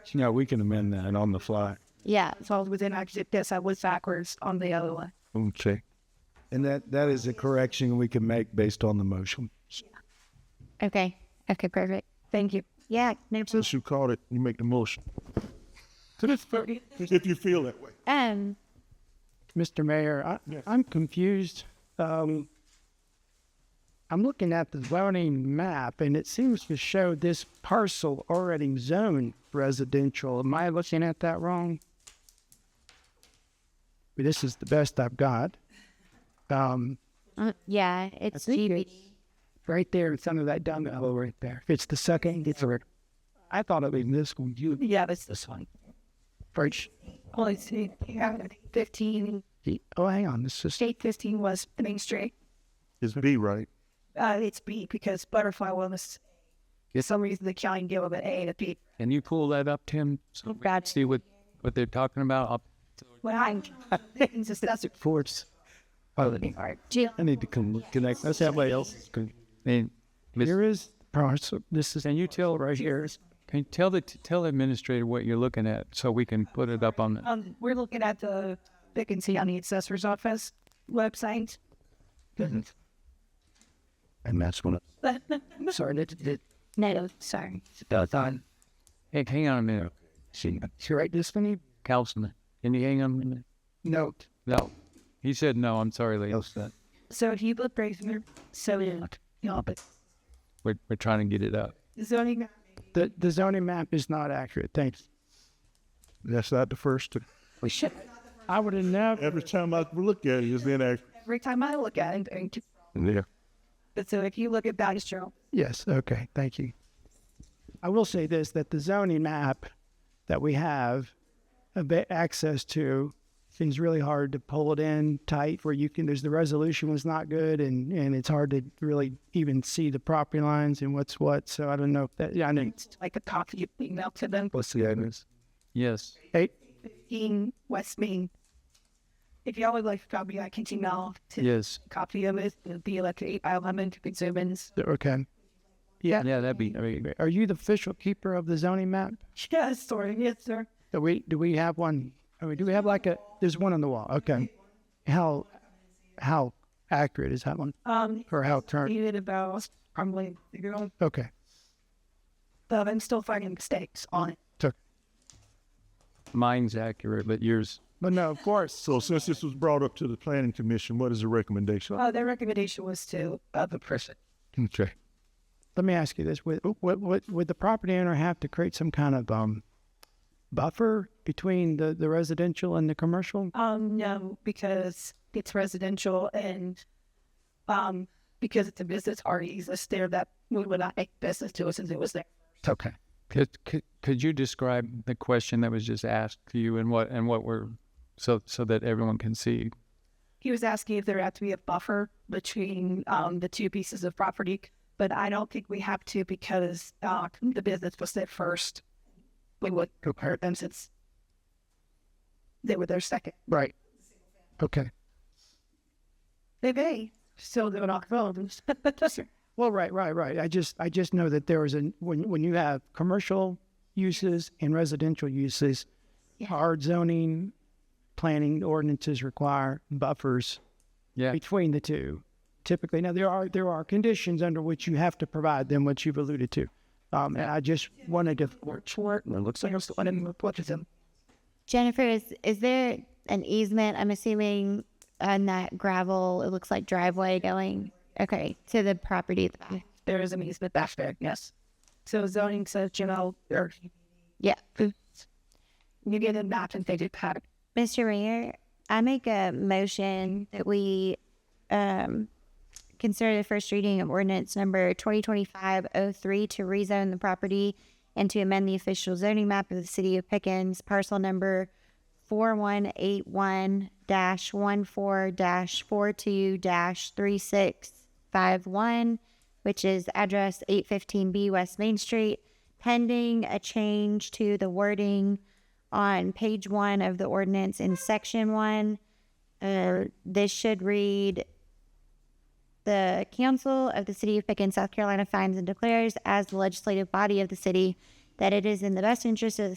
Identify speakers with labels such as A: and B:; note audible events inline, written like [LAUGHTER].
A: correct?
B: Yeah, we can amend that on the fly.
A: Yeah.
C: So I was within, I did this, I was backwards on the other one.
B: Okay. And that, that is a correction we can make based on the motion.
A: Okay. Okay. Perfect.
C: Thank you.
A: Yeah. No problem.
D: Since you called it, you make the motion. If you feel that way.
A: Um.
E: Mr. Mayor, I, I'm confused. Um, I'm looking at the zoning map and it seems to show this parcel already zoned residential. Am I looking at that wrong? But this is the best I've got. Um,
A: uh, Yeah. It's
E: think
A: GB.
E: right there in front of that dumbbell right there. It's the second, it's right. I thought it was this one. You
C: Yeah, that's this one.
E: first.
C: Well, it's yeah, 15,
E: Oh, hang on. This is
C: state 15 was the Main Street.
D: It's B, right?
C: Uh, it's B because Butterfly Wellness, for some reason, the county gave them an A and a B.
F: Can you pull that up, Tim? So we can see what, what they're talking about. I'll-
C: When I, it's just, that's it.
B: Force.
E: oh,
A: G-
B: I need to con- connect. That's somebody else's. con-
F: And Ms.
E: here is parcel. This is
F: Can you tell right here? Can you tell the tell the administrator what you're looking at so we can put it up on the
C: Um, we're looking at the vacancy on the assessor's office website.
B: And that's when
E: sorry. That, that,
A: no. Sorry.
E: uh,
F: Hey, hang on a minute,
E: she right this one?
F: Councilman. Can you hang on a minute?
E: No.
F: No, he said no. I'm sorry, lady.
C: So if you look right through, so yeah, no, but
F: We're, we're trying to get it up.
C: zoning,
E: The the zoning map is not accurate. Thanks.
D: That's not the first.
C: we should,
E: I would have never.
D: Every time I look at it, it's in action.
C: every time I look at it, and-
D: Yeah.
C: but so if you look at that, it's true.
E: Yes. Okay. Thank you. I will say this: that the zoning map that we have a bit access to seems really hard to pull it in tight where you can. There's the resolution was not good, and and it's hard to really even see the property lines and what's what. So I don't know if that. Yeah, I know.
C: It's like a copy of email to them,
B: What's the address?
F: Yes.
E: Hey,
C: in West Main. If y'all would like a copy, I can email to
F: Yes.
C: copy of it, the electric, I'll have it to consumers.
E: okay. Yeah.
F: Yeah, that'd be. I mean,
E: Are you the official keeper of the zoning map?
C: Yes, sorry, yes, sir.
E: Do we do we have one? I mean, do we have like a? There's one on the wall. Okay. How how accurate is that one?
C: Um,
E: Or how current?
C: needed about, probably, you know,
E: Okay.
C: but I'm still finding mistakes on it.
E: Took.
F: mine's accurate, but yours.
E: But no, of course.
D: So since this was brought up to the planning commission, what is the recommendation?
C: Uh, their recommendation was to, uh, the person.
B: Okay.
E: Let me ask you this: would, would, would, would the property owner have to create some kind of um, buffer between the, the residential and the commercial?
C: Um, no, because it's residential and um because it's a business already exists there that we would not make business to us since it was there.
E: Okay.
F: Could, could could you describe the question that was just asked to you and what and what we're so so that everyone can see?
C: He was asking if there had to be a buffer between um the two pieces of property, but I don't think we have to because uh the business was there first. We would compare them since they were there second.
E: Right. Okay.
C: They may still do not [LAUGHS] phones.
E: Well, right, right, right. I just I just know that there is an when when you have commercial uses and residential uses, hard zoning, planning ordinances require buffers
F: Yeah.
E: between the two. Typically, now there are there are conditions under which you have to provide them, which you've alluded to. Um, and I just wanted to
C: Short. It looks like I'm still in them.
A: Jennifer, is is there an easement? I'm assuming on that gravel. It looks like driveway going. Okay. To the property at the back.
C: There is an easement back there, yes. So zoning says, you know, or
A: Yeah.
C: you get a map and they did pattern.
A: Mr. Mayor, I make a motion that we um, consider the first reading of ordinance number 2025-03 to rezone the property and to amend the official zoning map of the city of Pickens, parcel number 4181-14-42-3651, which is address 815B West Main Street, pending a change to the wording on page one of the ordinance in section one. Uh, this should read the council of the city of Pickens, South Carolina finds and declares as the legislative body of the city that it is in the best interest of the